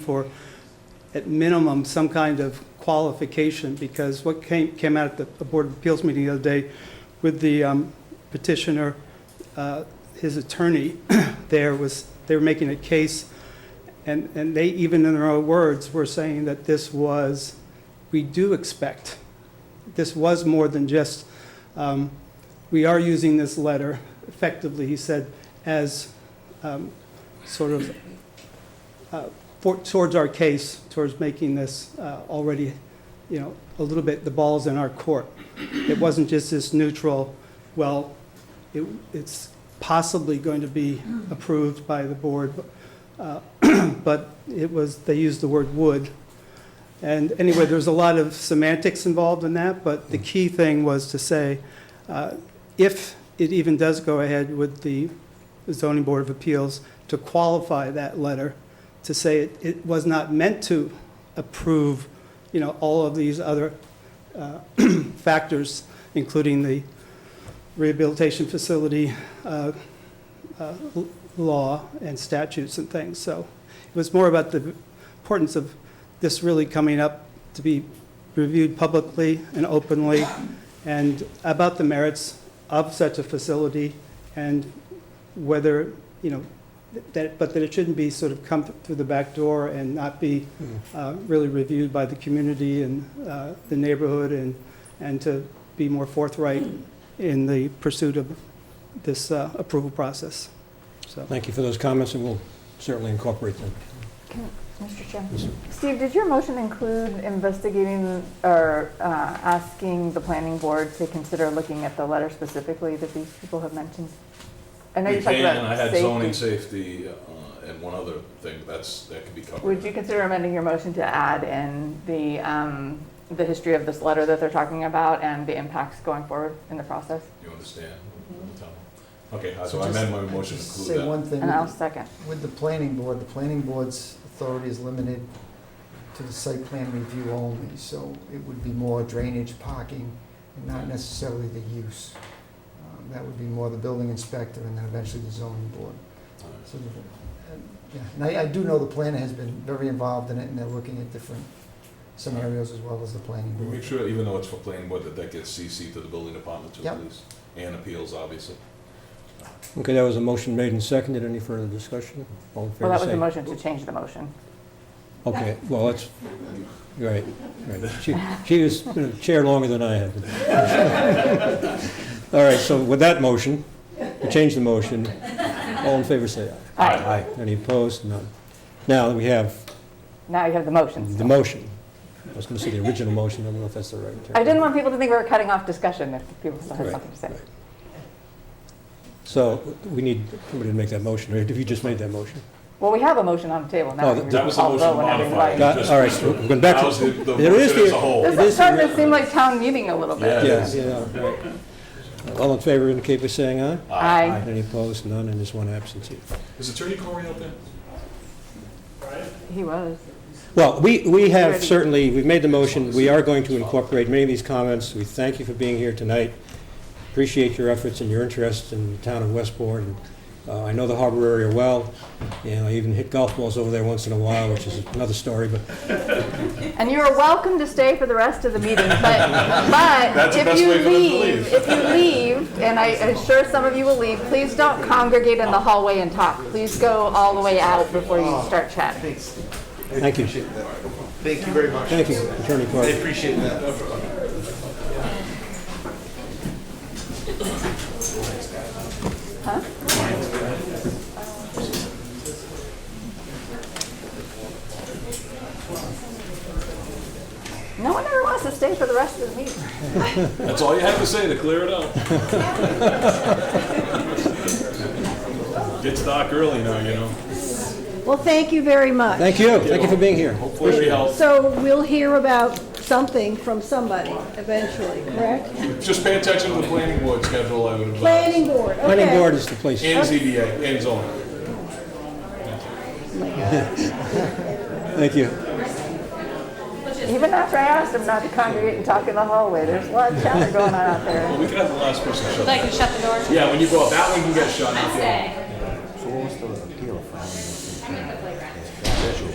for, at minimum, some kind of qualification, because what came, came out at the- the Board of Appeals meeting the other day with the um, petitioner, uh, his attorney there was, they were making a case, and, and they, even in their own words, were saying that this was, we do expect, this was more than just, um, we are using this letter effectively, he said, as um, sort of uh, for- towards our case, towards making this uh, already, you know, a little bit, the ball's in our court. It wasn't just this neutral, well, it- it's possibly going to be approved by the board, uh, but it was, they used the word "would." And anyway, there's a lot of semantics involved in that, but the key thing was to say, uh, if it even does go ahead with the zoning board of appeals, to qualify that letter, to say it, it was not meant to approve, you know, all of these other uh, factors, including the rehabilitation facility uh, uh, l- law and statutes and things. So it was more about the importance of this really coming up to be reviewed publicly and openly, and about the merits of such a facility and whether, you know, that, but that it shouldn't be sort of come through the back door and not be uh, really reviewed by the community and uh, the neighborhood and, and to be more forthright in the pursuit of this uh, approval process, so. Thank you for those comments, and we'll certainly incorporate them. Mr. Chair. Yes, sir. Steve, did your motion include investigating or uh, asking the planning board to consider looking at the letter specifically that these people have mentioned? I know you You talked can, about I had safety. zoning safety uh, and one other thing, that's, that could be covered. Would you consider amending your motion to add in the, um, the history of this letter that they're talking about and the impacts going forward in the process? You understand? Okay, so So I just- amend my motion to just include Say that. one thing, And I'll second. with the planning board, the planning board's authority is limited to the site plan review only, so it would be more drainage, parking, and not necessarily the use. Um, That would be more the building inspector and then eventually the zoning board. All right. So, uh, yeah, And I, I do know the planner has been very involved in it, and they're looking at different scenarios as well as the planning We Make board. sure, even though it's for planning board, that that gets CC to the building department too, Yep. please, and appeals, obviously. Okay, that was a motion made and seconded. Any further discussion? All in Well, favor, that was the say... motion to change the motion. Okay, well, that's, right, right. She she was in the chair longer than I had. All right, so with that motion, we change the motion. All in favor, say aye. Aye. Any opposed? None. Now, we have Now you have the motion. the motion. I was going to say the original motion, I don't know if that's the right term. I didn't want people to think we were cutting off discussion if people still had Right, something to say. right. So we need somebody to make that motion, right? If you just made that motion. Well, we have a motion on the table now. Oh, We that- That was the call motion vote on everybody. modified. Got- all right, we're going back to- That was the, the There is motion as the- a whole. It is This is starting to irre- seem like town meeting a little bit. Yeah. Yes, yeah, right. All in favor indicate by saying aye. Aye. Aye. Any opposed? None, and there's one absentee. Is Attorney Corey out there? He was. Well, we, we have Already. certainly, we've made the motion, we are going to incorporate many of these comments. We thank you for being here tonight. Appreciate your efforts and your interest in the town of Westport. And, uh, I know the harbor area well, and I even hit golf balls over there once in a while, which is another story, but And you are welcome to stay for the rest of the meeting, but, but That's the if best you way for them to leave, leave. if you leave, and I am sure some of you will leave, please don't congregate in the hallway and talk. Please go all the way out before you start chatting. thank you. Thank you very much. Thank you, Attorney I Clark. appreciate that. No one ever wants to stay for the rest of the meeting. That's all you have to say to clear it up. Gets dark early now, you know. Well, thank you very much. Thank you, thank you for being here. Hopefully we help. So we'll hear about something from somebody eventually, correct? Just pay attention to the planning board schedule, I would advise. Planning board, okay. Planning board is the place. And ZBA, and zoning. Thank you. Even after I asked them not to congregate and talk in the hallway, there's a lot of chatter going on out there. Well, we can have the last person shut. Like, you shut the door? Yeah, when you go up, that one can get shut. not the other. Stay. So what was the appeal from?